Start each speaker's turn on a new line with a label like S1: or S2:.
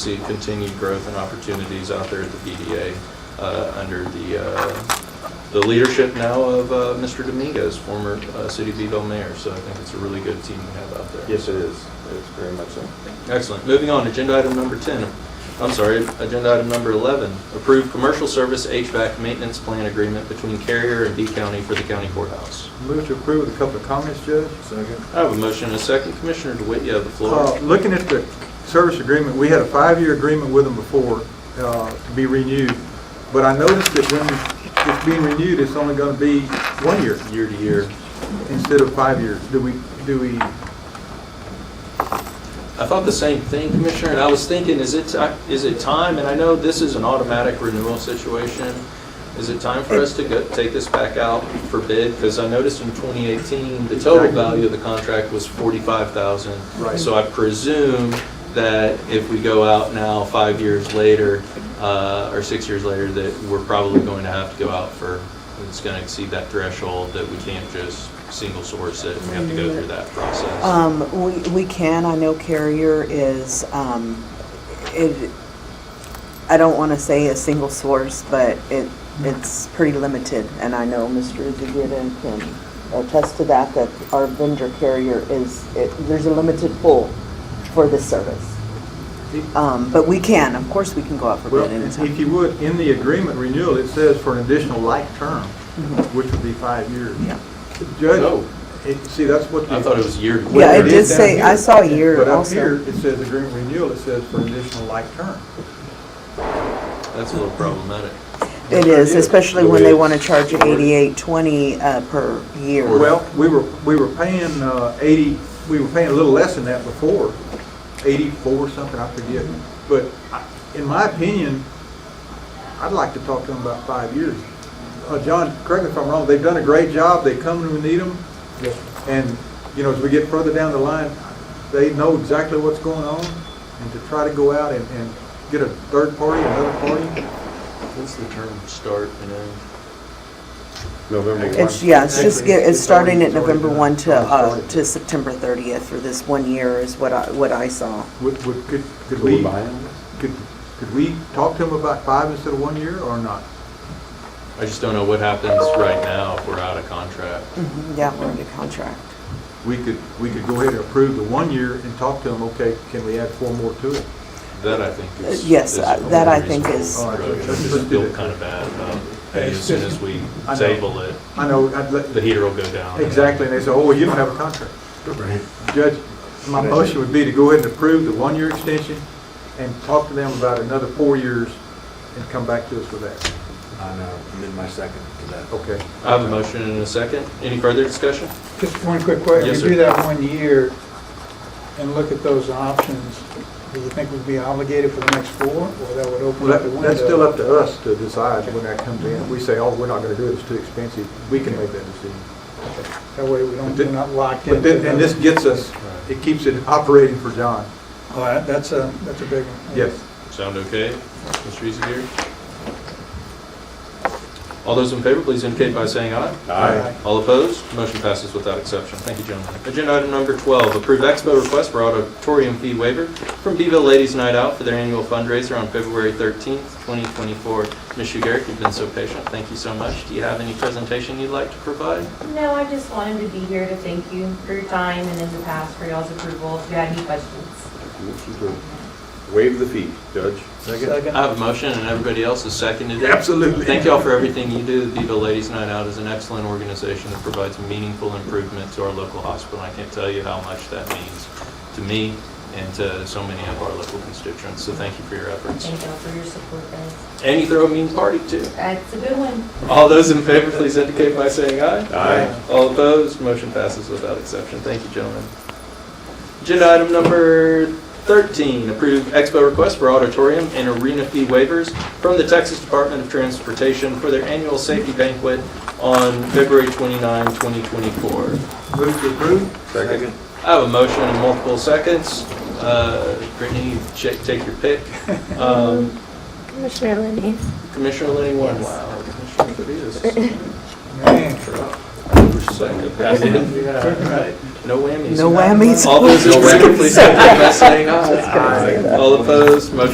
S1: see continued growth and opportunities out there at the BDA uh, under the, uh, the leadership now of uh, Mr. Dominguez, former uh, City of Beville mayor. So I think it's a really good team we have out there.
S2: Yes, it is. It's very much so.
S1: Excellent. Moving on, agenda item number 10, I'm sorry, agenda item number 11, approve commercial service HVAC maintenance plan agreement between Carrier and B County for the county courthouse.
S3: Move to approve with a couple of comments, Judge. Second.
S1: I have a motion and a second. Commissioner DeWitt, you have the
S3: Uh,
S1: floor.
S3: Looking at the service agreement, we had a five-year agreement with them before uh, to be renewed, but I noticed that when it's being renewed, it's only going to be one year
S1: Year to year.
S3: instead of five years. Do we, do we,
S1: I thought the same thing, Commissioner, and I was thinking, is it, ti- is it time? And I know this is an automatic renewal situation. Is it time for us to go, take this back out for bid? Because I noticed in 2018, the total value of the contract was 45,000.
S3: Right.
S1: So I presume that if we go out now, five years later, uh, or six years later, that we're probably going to have to go out for, it's going to exceed that threshold, that we can't just single source it, and we have to go through that process.
S4: Um, we, we can, I know Carrier is, um, it, I don't wanna say a single source, but it, it's pretty limited, and I know Mr. DeGita can attest to that, that our vendor Carrier is, it, there's a limited pool for this service. Um, but we can, of course, we can go out for
S3: well,
S4: bid
S3: if
S4: anytime.
S3: you would, in the agreement renewal, it says for an additional life term, which would be five years.
S4: Yeah.
S3: Judge,
S1: Oh.
S3: it- see, that's what. the-
S1: I thought it was year to year.
S3: what
S4: Yeah, it did
S3: is down
S4: say- I
S3: here.
S4: saw a year
S3: But up
S4: also.
S3: here, it says agreement renewal, it says for an additional life term.
S1: That's a little problematic.
S4: It is, especially when they
S1: It is.
S4: wanna charge eighty-eight twenty, uh, per year.
S3: Well, we were, we were paying uh, 80, we were paying a little less than that before, 84 something, I forget. But I- in my opinion, I'd like to talk to them about five years. Uh, John, correct me if I'm wrong, they've done a great job, they come when we need them. And, you know, as we get further down the line, they know exactly what's going on. And to try to go out and, and get a third party, another party,
S1: What's the term start and end?
S2: November
S4: It's,
S2: 1.
S4: yeah, it's just,
S3: Actually,
S4: get- it's
S3: it's already-
S4: starting at
S3: it's already
S4: November
S3: been-
S4: 1 to,
S3: already
S4: uh,
S3: started.
S4: to September 30th for this one year is what I, what I saw.
S3: would, would, could, could
S2: Could we
S3: we,
S2: buy them?
S3: could, could we talk to them about five instead of one year or not?
S1: I just don't know what happens right now if we're out of contract.
S4: Yeah, we're under contract.
S3: we could, we could go ahead and approve the one year and talk to them, okay, can we add four more to it?
S1: That I think is.
S4: Uh, yes,
S1: is
S4: uh,
S1: a
S4: that I think
S1: reasonable
S4: is-
S1: approach. Oh, I
S3: Let's
S1: just
S3: do
S1: feel
S3: that.
S1: kind of bad about, hey, as soon as we
S3: I know.
S1: table it,
S3: I know, I'd
S1: the
S3: let,
S1: heater will go down.
S3: exactly, and they say, oh, well, you don't have a contract.
S2: Right.
S3: Judge, my motion would be to go ahead and approve the one-year extension and talk to them about another four years and come back to us with that.
S2: I know, I'm in my second to that.
S3: Okay.
S1: I have a motion and a second. Any further discussion?
S5: Just one quick question.
S1: Yes,
S5: If
S1: sir.
S5: you do that one year and look at those options, do you think we'd be obligated for the next four, or that would
S3: Well,
S5: open up the
S3: that-
S5: window?
S3: that's still up to us to decide when that comes in. We say, oh, we're not gonna do it, it's too expensive, we can make that decision.
S5: That way we don't, we're not locked in.
S3: But then, and this gets us, it keeps it operating for John.
S5: All right, that's a, that's a big one.
S3: Yes.
S1: Sound okay? Mr. Easygear? All those in favor, please indicate by saying aye.
S3: Aye.
S1: All opposed? Motion passes without exception. Thank you, gentlemen. Agenda item number 12, approve expo request for auditorium fee waiver from Beeville Ladies Night Out for their annual fundraiser on February 13th, 2024. Ms. Shugarick, you've been so patient. Thank you so much. Do you have any presentation you'd like to provide?
S6: No, I just wanted to be here to thank you for your time and in the past for y'all's approval. If you had any questions.
S2: Motion to Waive the fee, Judge.
S3: Second.
S1: I have a motion, and everybody else has seconded it.
S3: Absolutely.
S1: Thank y'all for everything you do. The Viva Ladies Night Out is an excellent organization that provides meaningful improvement to our local hospital. I can't tell you how much that means to me and to so many of our local constituents, so thank you for your efforts.
S6: Thank y'all for your support, guys.
S1: And you throw a mean party, too.
S6: That's a good one.
S1: All those in favor, please indicate by saying aye.
S2: Aye.
S1: All opposed, motion passes without exception. Thank you, gentlemen. Agenda item number 13, approve expo request for auditorium and arena fee waivers from the Texas Department of Transportation for their annual safety banquet on February 29, 2024.
S3: Move to approve?
S2: Second.
S1: I have a motion in multiple seconds. Uh, Brittany, you check- take your pick. Um,
S7: Commissioner Lenny,
S1: Commissioner Lenny, one. Wow. Commissioner Fernandez. No whammies.
S4: No whammies.
S1: All those in favor, please signify by saying aye. All opposed, motion